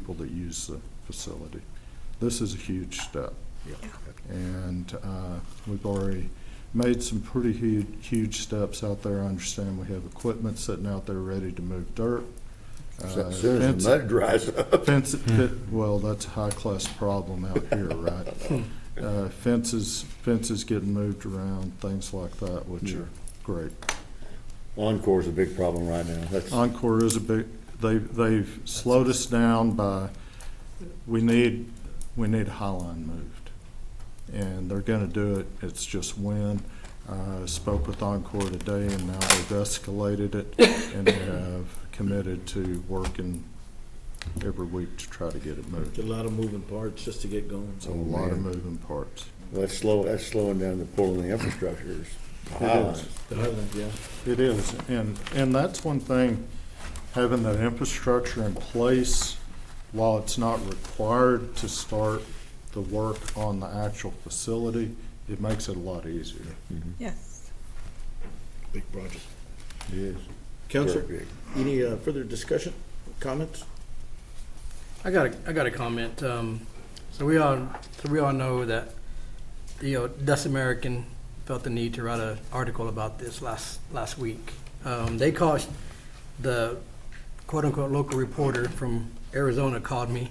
people that use the facility. This is a huge step. And uh, we've already made some pretty huge, huge steps out there. I understand we have equipment sitting out there ready to move dirt. Uh, As soon as fence- the mud dries up. Fence, fit- well, that's a high-class problem out here, right? Uh, Fences, fences getting moved around, things like that, which are great. Encore's a big problem right now. That's, Encore is a big, they, they've slowed us down by, we need, we need a High Line moved. And they're gonna do it, it's just when. Uh, spoke with Encore today and now they've escalated it and they have committed to working every week to try to get it It's moved. A lot of moving parts just to get going. So a lot of moving parts. that's slow, that's slowing down the pulling the infrastructures. The Highlands, yeah. It is, and, and that's one thing, having that infrastructure in place, while it's not required to start the work on the actual facility, it makes it a lot easier. Yes. Big project. Yes. Counselor, any uh, further discussion, comments? I got a, I got a comment. Um, so we all, so we all know that, you know, Dust American felt the need to write an article about this last, last week. Um, they called, the quote-unquote local reporter from Arizona called me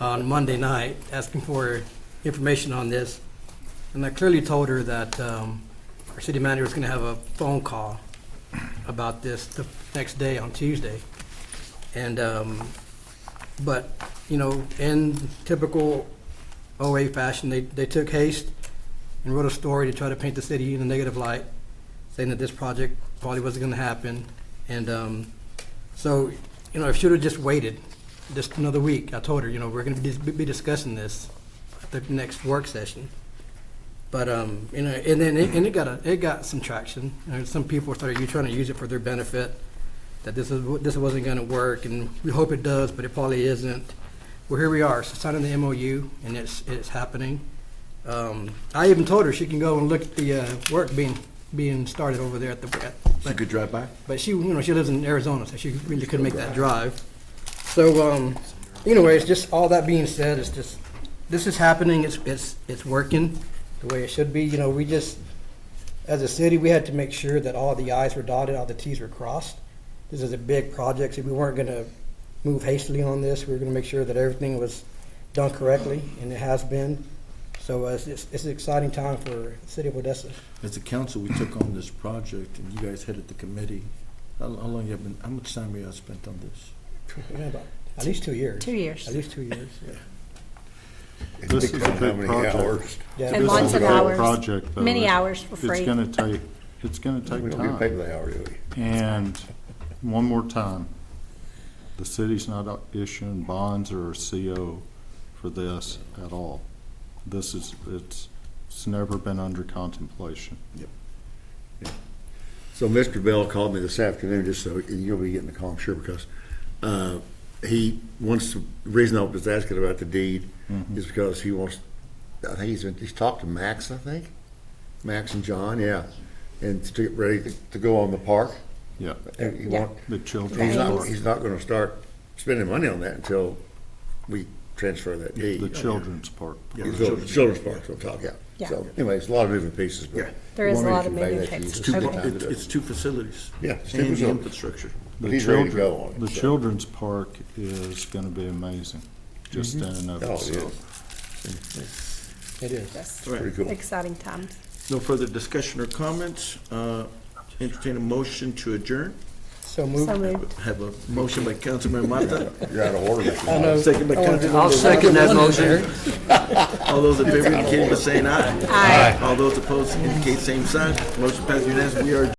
on Monday night asking for information on this. And I clearly told her that, um, our city manager was gonna have a phone call about this the next day on Tuesday. And, um, but, you know, in typical OA fashion, they, they took haste and wrote a story to try to paint the city in a negative light, saying that this project probably wasn't gonna happen. And, um, so, you know, I should have just waited just another week. I told her, you know, we're gonna be, be discussing this at the next work session. But, um, you know, and then, it- and it got, a it got some traction. You know, some people started, you trying to use it for their benefit that this is this wasn't going to work, and we hope it does, but it probably isn't. Well, here we are, so signing the MOU, and it's it's happening. Um, I even told her she can go and look at the uh, work being being started over there at the. At, You could drive by. but she, you know, she lives in Arizona, so she really couldn't make that drive. So, um, anyways, just all that being said, it's just, this is happening, it's, it's, it's working the way it should be, you know, we just, as a city, we had to make sure that all the i's were dotted, all the t's were crossed. This is a big project, so we weren't gonna move hastily on this, we were gonna make sure that everything was done correctly, and it has been. So uh, it's, it's it's an exciting time for the city of Odessa. As a council, we took on this project and you guys headed the committee. How, how long you have been, how much time have you spent on this? You know, about At least two years. Two years. At least two years. This is a big project. Yeah. And This lots is a of great hours. project, though. Many It- hours for free. It's gonna take, it's gonna take We don't get paid time. by the hour, do we? And one more time, the city's not issuing bonds or a CO for this at all. This is, it's, it's never been under contemplation. So Mr. Bell called me this afternoon, just so, and you'll be getting the call, I'm sure, because, uh, he wants, to- the reason I was asking about the deed is because he wants, I think he's, been- he's talked to Max, I think, Max and John, yeah, and to get ready to, to go on the park. Yeah, And he Yeah. want, the he's children's not, park, he's not gonna start spending money on that until we transfer that deed. the children's park. Children's children's parks, we'll talk, yeah. Yeah. So anyways, a lot of moving pieces, but. There is a wanted to lot of convey moving that to you. pieces. It's too- Okay. it- it's two facilities. Yeah, it's two And the facilities. infrastructure. The But he's ready to children- go on it, The so. children's park is gonna be amazing, just in and of Oh, it itself. is. It is. Yes. Pretty cool. Exciting times. No further discussion or comments. Uh, Entertain a motion to adjourn. So moved. So moved. Have a motion by Councilman Mata, You're out of order. Mr. Lyon. second by I'll Councilman second that motion. All those in favor indicate by saying aye. Aye. All those opposed indicate same sign. Motion passed unanimously. We are adjourned.